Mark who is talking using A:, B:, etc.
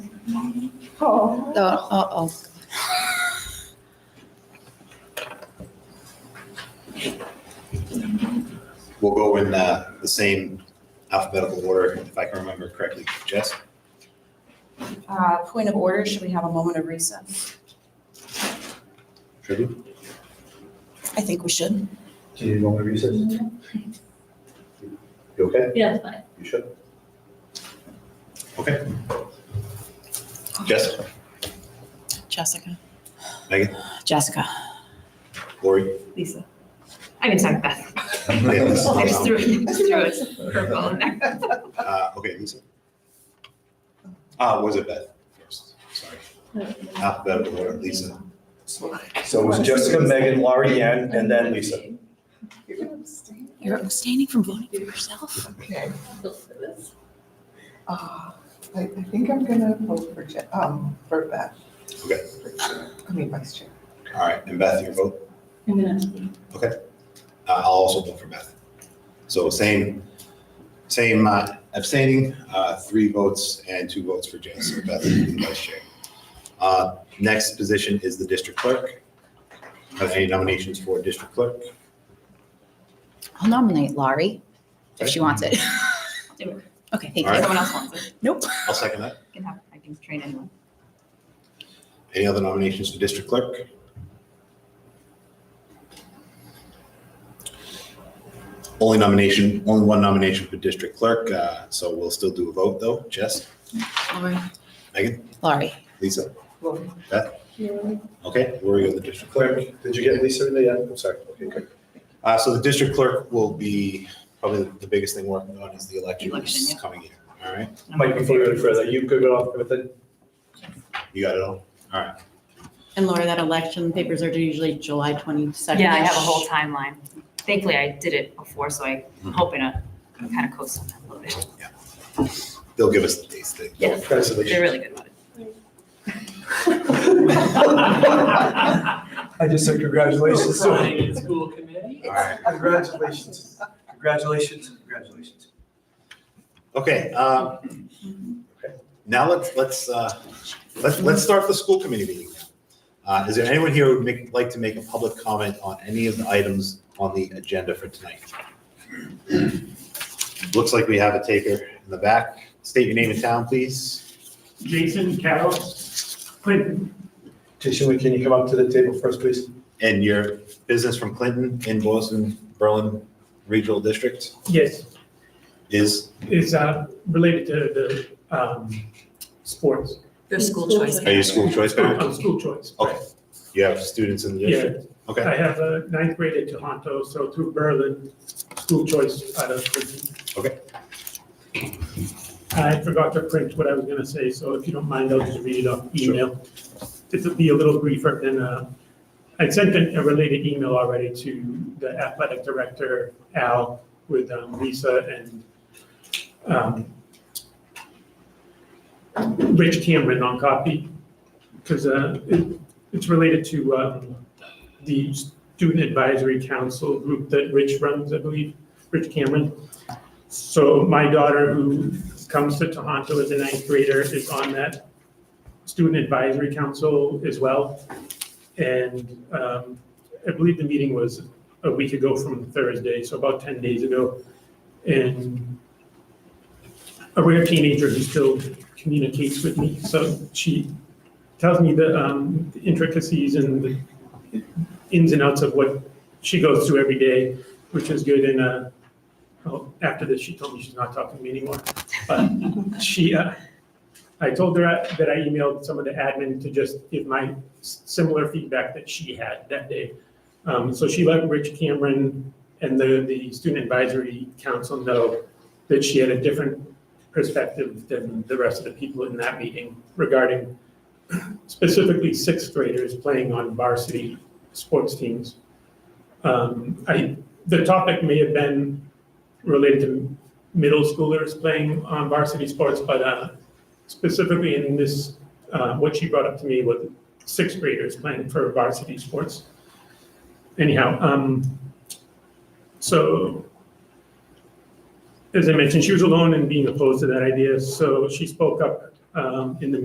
A: Oh,
B: The, oh, oh,
C: We'll go in uh, the same alphabetical order, if I can remember correctly. Jess?
B: uh, point of order, should we have a moment of recess?
C: Should we?
B: I think we should.
C: Do you want to recess?
D: Mm-hmm.
C: You okay?
D: Yeah, it's fine.
C: You should. Okay. Jess,
B: Jessica.
C: Megan?
B: Jessica.
C: Lori?
D: Lisa. I mean, sorry, Beth. I just
C: Uh,
D: threw, just threw a curveball in there.
C: Okay, Lisa? Ah, was it Beth first? Sorry. Alphabetical order, Lisa.
E: So it was Jessica, Megan, Laurie, Ann, and then Lisa.
A: you're gonna abstain?
B: You're abstaining from voting for yourself?
A: Okay. Uh, I, I think I'm gonna vote for, Je- um, for Beth.
C: Okay.
A: For chair. I mean, vice chair.
C: All right, and Beth, your vote?
D: I'm gonna.
C: Uh, I'll also vote for Beth. So same, same uh, abstaining, uh, three votes and two votes for Jay, so Beth is the vice chair. Uh, Next position is the district clerk. Are there any nominations for district clerk?
B: I'll nominate Laurie if she wants it. Okay, thank
C: All right.
B: you.
D: Someone else wants it.
B: Nope.
C: I'll second that.
D: Can have, I can train anyone.
C: Any other nominations for district clerk? Only nomination, only one nomination for district clerk, uh, so we'll still do a vote though. Jess,
B: Laurie.
C: Megan?
B: Laurie.
C: Lisa?
A: Lori.
C: Okay, Lori, you're the district clerk.
E: Did you get Lisa in the end? I'm sorry. Okay, good.
C: Uh, so the district clerk will be, probably the biggest thing working on is the election
D: Election,
C: this
D: yeah.
C: coming year. All right,
E: Mike, before we go any further, you could go off with it.
C: you got it all? All right,
F: And Laura, that election papers are due usually July twenty-second.
D: Yeah, I have a whole timeline. Thankfully, I did it before, so I'm
C: Mhm.
D: hoping to kind of coast on that a little bit.
C: they'll give us the dates. They-
D: Yes. They're
E: Congratulations.
D: really good about it.
E: I just said
D: Oh,
E: congratulations. So,
G: Signing in school committee?
C: All right,
E: Congratulations. Congratulations, congratulations.
C: okay, um, now let's, let's, uh, let's, let's start the school committee meeting now. Uh, is there anyone here who would make, like to make a public comment on any of the items on the agenda for tonight? Looks like we have a taker in the back. State your name and town, please.
G: Jason Carroll, Clinton.
E: Jason, can you come up to the table first, please?
C: And your business from Clinton in Boston, Berlin Regional District?
G: Yes,
C: is,
G: is uh, related to the um, sports,
B: Your school choice.
C: are you school choice parent?
G: uh, school choice.
C: Okay, you have students in the
G: Yeah,
C: district? Okay,
G: I have a ninth grade at Tohoto, so through Berlin, school choice out of Clinton.
C: Okay.
G: I forgot to print what I was gonna say, so if you don't mind, I'll just read it off
C: Sure.
G: email. It'll be a little briefer than, uh, I sent an- a related email already to the athletic director, Al, with um, Lisa and um, Rich Cameron on copy, because it's related to um, the Student Advisory Council group that Rich runs, I believe, Rich Cameron. So my daughter, who comes to Tohoto as a ninth grader, is on that Student Advisory Council as well. And um, I believe the meeting was a week ago from Thursday, so about 10 days ago. And a rare teenager who still communicates with me, so she tells me the um, the intricacies and the ins and outs of what she goes through every day, which is good. And uh, well, after this, she told me she's not talking to me anymore. But she, uh, I told her I- that I emailed some of the admin to just give my s- similar feedback that she had that day. Um, so she let Rich Cameron and the, the Student Advisory Council know that she had a different perspective than the rest of the people in that meeting regarding specifically sixth graders playing on varsity sports teams. Um, I, the topic may have been related to middle schoolers playing on varsity sports, but uh, specifically in this, uh, what she brought up to me was sixth graders playing for varsity sports. Anyhow, um, so as I mentioned, she was alone in being opposed to that idea, so she spoke up um, in the